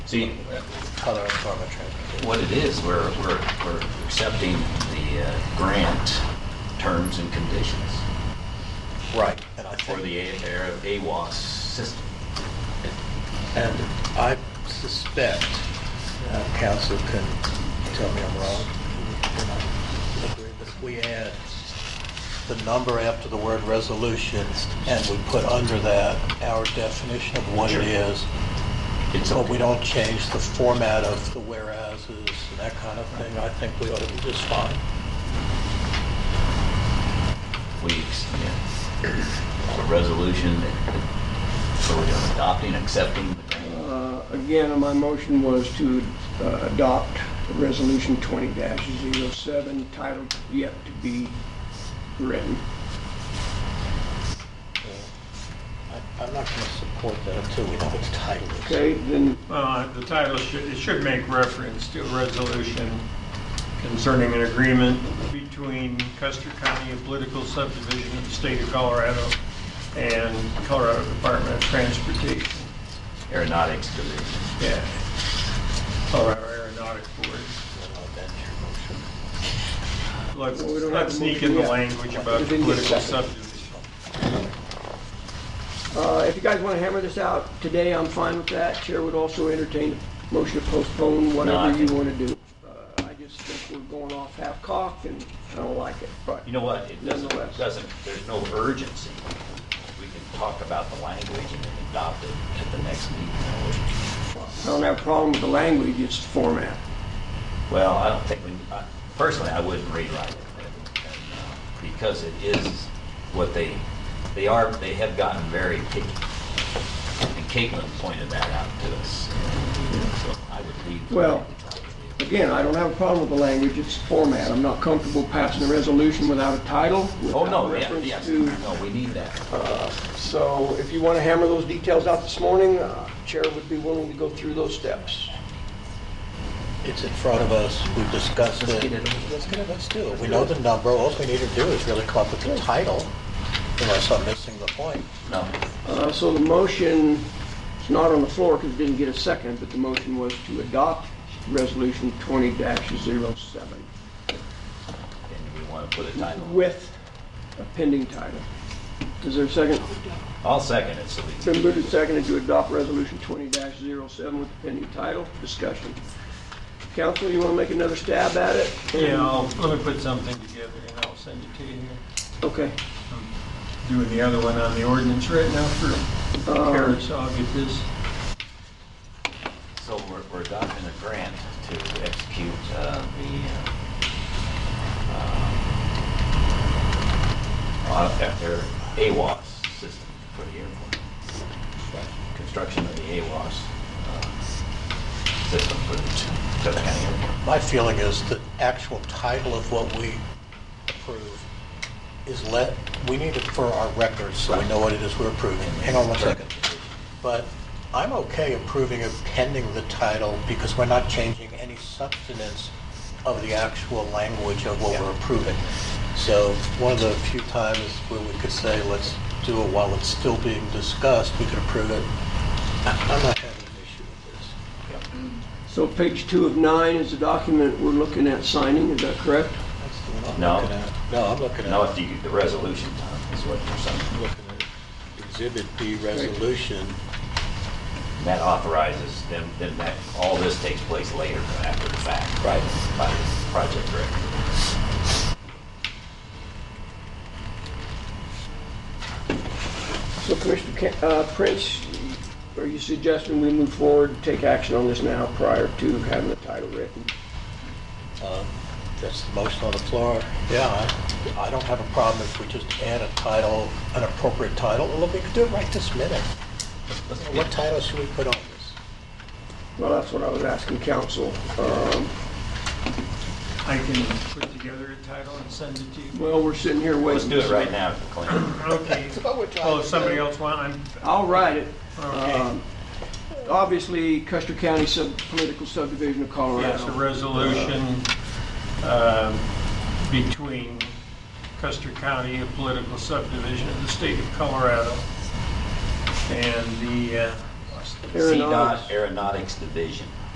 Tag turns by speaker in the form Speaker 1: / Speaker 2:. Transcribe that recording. Speaker 1: See,
Speaker 2: other form of transportation.
Speaker 1: what it is, we're, we're, we're accepting the uh, grant terms and conditions
Speaker 2: Right, and I
Speaker 1: for
Speaker 2: think,
Speaker 1: the A- air- AWAS system.
Speaker 2: and I suspect, uh, council can tell me I'm wrong, and I agree, but if we add the number after the word resolution, and we put under that our definition of what it is,
Speaker 1: It's
Speaker 2: but
Speaker 1: okay.
Speaker 2: we don't change the format of the whereases and that kind of thing, I think we ought to be just fine.
Speaker 1: We, yeah. A resolution, so we're adopting, accepting the grant.
Speaker 3: Uh, Again, my motion was to uh, adopt Resolution 20-07, titled yet to be written.
Speaker 2: I- I'm not going to support that until we know its title.
Speaker 3: Okay, then,
Speaker 4: Uh, The title should, it should make reference to a resolution concerning an agreement between Custer County, a political subdivision of the state of Colorado, and Colorado Department of Transportation,
Speaker 1: aeronautics division.
Speaker 4: yeah, Colorado Aeronautics Board.
Speaker 2: uh, That's your motion.
Speaker 4: Let's,
Speaker 3: Well, we don't have
Speaker 4: let's
Speaker 3: a
Speaker 4: sneak
Speaker 3: motion
Speaker 4: in the
Speaker 3: yet.
Speaker 4: language about
Speaker 3: It
Speaker 4: the
Speaker 3: didn't get
Speaker 4: political
Speaker 3: seconded.
Speaker 4: subdivision.
Speaker 3: uh, if you guys want to hammer this out today, I'm fine with that. Chair would also entertain a motion to postpone
Speaker 1: No, I
Speaker 3: whatever you
Speaker 1: think-
Speaker 3: want to do. Uh, I just think we're going off half-cocked, and I don't like it. But
Speaker 1: You know what, it doesn't,
Speaker 3: Nonetheless.
Speaker 1: doesn't, there's no urgency. We can talk about the language and then adopt it at the next meeting.
Speaker 3: I don't have a problem with the language, it's the format.
Speaker 1: Well, I don't think, we. I- personally, I wouldn't rewrite it. and, uh, Because it is what they, they are, they have gotten very picky. And Caitlin pointed that out to us. So I would leave. the
Speaker 3: Well-
Speaker 1: language out.
Speaker 3: Again, I don't have a problem with the language, it's the format. I'm not comfortable passing a resolution without a title,
Speaker 1: Oh,
Speaker 3: without
Speaker 1: no, yeah,
Speaker 3: reference
Speaker 1: yes,
Speaker 3: to
Speaker 1: no, we need that.
Speaker 3: So if you want to hammer those details out this morning, uh, Chair would be willing to go through those steps.
Speaker 2: It's in front of us, we've discussed
Speaker 1: Let's
Speaker 2: it.
Speaker 1: get it.
Speaker 2: Let's get it, let's do it. We know the number, all we need to do is really come up with the title, unless I'm missing the point.
Speaker 1: No,
Speaker 3: Uh, So the motion, it's not on the floor because it didn't get a second, but the motion was to adopt Resolution 20-07
Speaker 1: and we want to put a title.
Speaker 3: with a pending title. Is there a second?
Speaker 1: I'll second it, so we
Speaker 3: It's been moved and seconded to adopt Resolution 20-07 with a pending title. Discussion. Council, you want to make another stab at it?
Speaker 4: Yeah, I'll- let me put something together and I'll send it to you here.
Speaker 3: Okay.
Speaker 4: Doing the other one on the ordinance right now for
Speaker 3: Um,
Speaker 4: Kara, so I'll get this.
Speaker 1: So we're, we're adopting a grant to execute uh, the uh, um, uh, their AWAS system for the airport. Construction of the AWAS uh, system for the Custer County Airport.
Speaker 2: My feeling is the actual title of what we approve is let, we need it for our records, so we know what it is we're approving. Hang on one second. But I'm okay approving of pending the title, because we're not changing any substance of the actual language of what we're approving. So one of the few times where we could say, let's do it while it's still being discussed, we could approve it. I- I'm not having an issue with this.
Speaker 3: So page two of nine is the document we're looking at signing, is that correct?
Speaker 2: That's the one I'm
Speaker 1: No.
Speaker 2: looking at. No, I'm looking at.
Speaker 1: Now, if you, the resolution, Tom, is what you're saying.
Speaker 2: looking at Exhibit B resolution.
Speaker 1: That authorizes them, then that, all this takes place later after the fact.
Speaker 2: Right.
Speaker 1: By the project director.
Speaker 3: So Commissioner Ca- uh, Prince, are you suggesting we move forward, take action on this now prior to having the title written?
Speaker 2: Um, That's the motion on the floor. Yeah, I- I don't have a problem if we just add a title, an appropriate title, or we could do it right this minute.
Speaker 1: Let's get-
Speaker 2: What title should we put on this?
Speaker 3: Well, that's what I was asking council. Um,
Speaker 4: I can put together a title and send it to you.
Speaker 3: Well, we're sitting here
Speaker 1: Let's
Speaker 3: waiting.
Speaker 1: do it right now, Clint.
Speaker 4: Okay. Oh, if somebody else want, I'm,
Speaker 3: I'll write it.
Speaker 4: okay.
Speaker 3: Um, Obviously, Custer County Sub- Political Subdivision of
Speaker 4: Yes, a
Speaker 3: Colorado.
Speaker 4: resolution um, between Custer County, a political subdivision of the state of Colorado, and the, uh,
Speaker 3: Aeronautics.
Speaker 1: CDOT Aeronautics Division.